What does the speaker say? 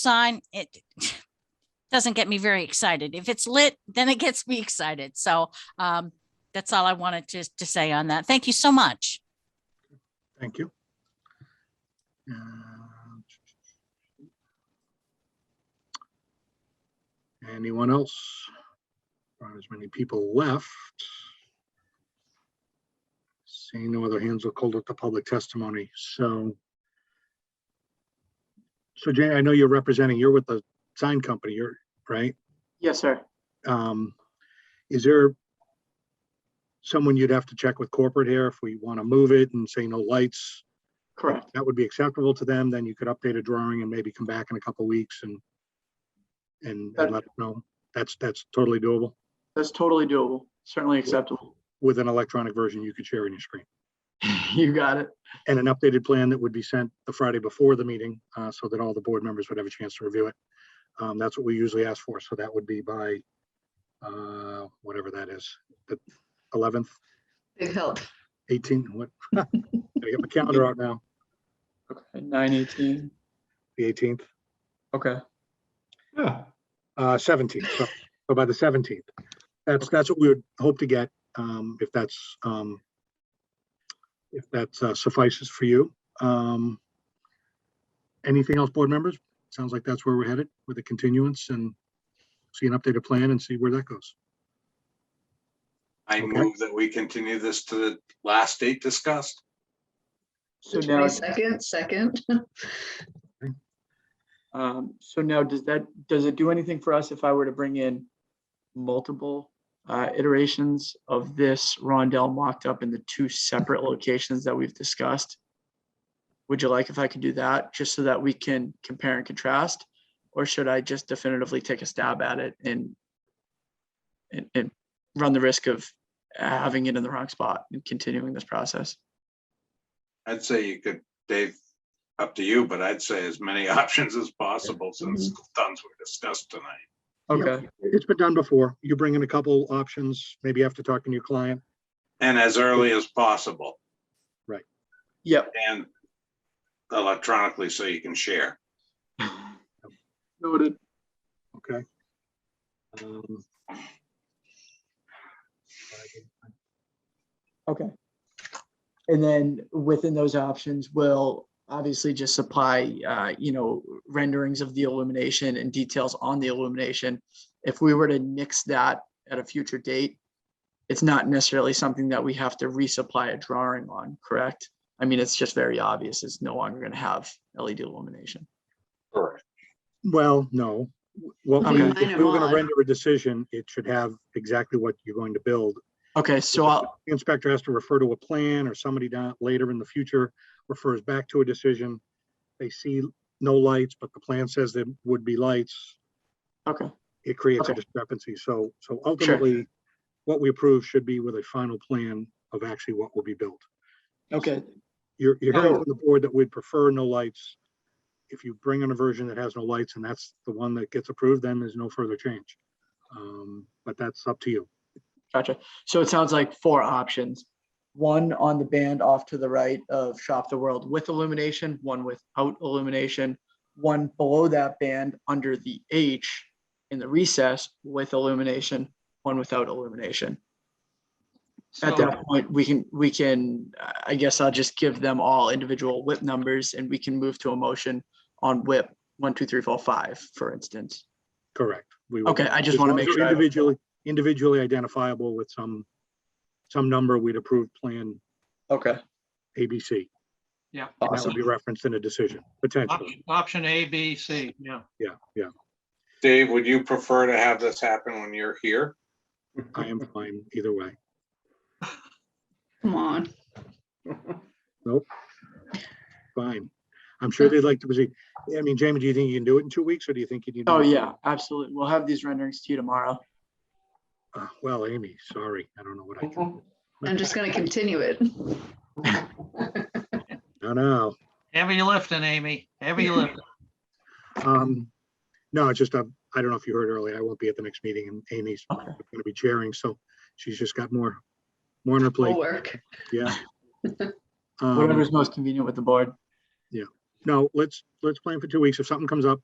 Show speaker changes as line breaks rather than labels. sign, it doesn't get me very excited. If it's lit, then it gets me excited. So um, that's all I wanted to, to say on that. Thank you so much.
Thank you. Uh, And- Anyone else? Not as many people left. Seeing no other hands, we'll call it the public testimony, so. So Jane, I know you're representing, you're with the sign company, you're, right?
Yes, sir.
Um, is there someone you'd have to check with corporate here if we want to move it and say no lights?
Correct.
that would be acceptable to them, then you could update a drawing and maybe come back in a couple weeks and and and
That-
let them know. That's, that's totally doable.
That's totally doable. Certainly acceptable.
With an electronic version you could share on your screen.
You got it.
And an updated plan that would be sent the Friday before the meeting, uh, so that all the board members would have a chance to review it. Um, that's what we usually ask for, so that would be by uh, whatever that is, the eleventh,
Big help.
eighteen, what? Gotta get my calendar out now,
Okay, nine eighteen.
the eighteenth,
Okay.
Yeah,
uh, seventeenth, so so by the seventeenth. That's, that's what we would hope to get, um, if that's, um, if that uh, suffices for you. Um, anything else, board members? Sounds like that's where we're headed with the continuance and see an updated plan and see where that goes.
I
Okay.
move that we continue this to the last date discussed.
So now,
Twenty-second, second.
um, so now does that, does it do anything for us if I were to bring in multiple uh, iterations of this rondel mocked up in the two separate locations that we've discussed? Would you like if I could do that, just so that we can compare and contrast? Or should I just definitively take a stab at it and and, and run the risk of having it in the wrong spot and continuing this process?
I'd say you could, Dave, up to you, but I'd say as many options as possible
Mm-hmm.
since the ones were discussed tonight.
Yeah.
Okay.
It's been done before. You bring in a couple options, maybe after talking to your client.
And as early as possible
Yep.
and electronically so you can share.
Noted.
Okay. Um,
Okay. And then within those options, we'll obviously just supply, uh, you know, renderings of the illumination and details on the illumination. If we were to nix that at a future date, it's not necessarily something that we have to resupply a drawing on, correct? I mean, it's just very obvious. It's no longer going to have LED illumination.
Correct.
Well, no. Well, I mean,
Combine
if we
them
were gonna
all.
render a decision, it should have exactly what you're going to build
Okay, so
if the
I'll,
Inspector has to refer to a plan or somebody down later in the future refers back to a decision. They see no lights, but the plan says there would be lights.
okay,
It creates a
Okay.
discrepancy. So, so ultimately, what we approve should be with a final plan of actually what will be built.
okay,
You're, you're hearing
Oh.
from the board that we'd prefer no lights. If you bring in a version that has no lights and that's the one that gets approved, then there's no further change. Um, But that's up to you.
Gotcha. So it sounds like four options. One on the band off to the right of Shop the World with illumination, one without illumination, one below that band under the H in the recess with illumination, one without illumination. At that point, we can, we can, I- I guess I'll just give them all individual whip numbers and we can move to a motion on whip one, two, three, four, five, for instance.
Correct. We would-
Okay, I just
As
want to
long as
make
they're
sure. I-
Individually, individually identifiable with some, some number we'd approve plan
Okay,
ABC.
Yeah,
and That would be
awesome.
referenced in a decision, potentially.
option, option A, B, C, yeah.
Yeah, yeah.
Dave, would you prefer to have this happen when you're here?
I am fine either way.
Come on.
Fine. I'm sure they'd like to proceed. I mean, Jamie, do you think you can do it in two weeks or do you think you need?
Oh,
more?
yeah, absolutely. We'll have these renderings to you tomorrow.
Uh, Well, Amy, sorry. I don't know what I can.
I'm just gonna continue it.
No, no.
Heavy lifting, Amy, heavy lifting.
Um, no, it's just, um, I don't know if you heard earlier, I won't be at the next meeting and Amy's
Okay.
going to be chairing, so she's just got more, more on her plate.
We'll work.
Yeah. Um,
Whatever's most convenient with the board.
No, let's, let's plan for two weeks. If something comes up,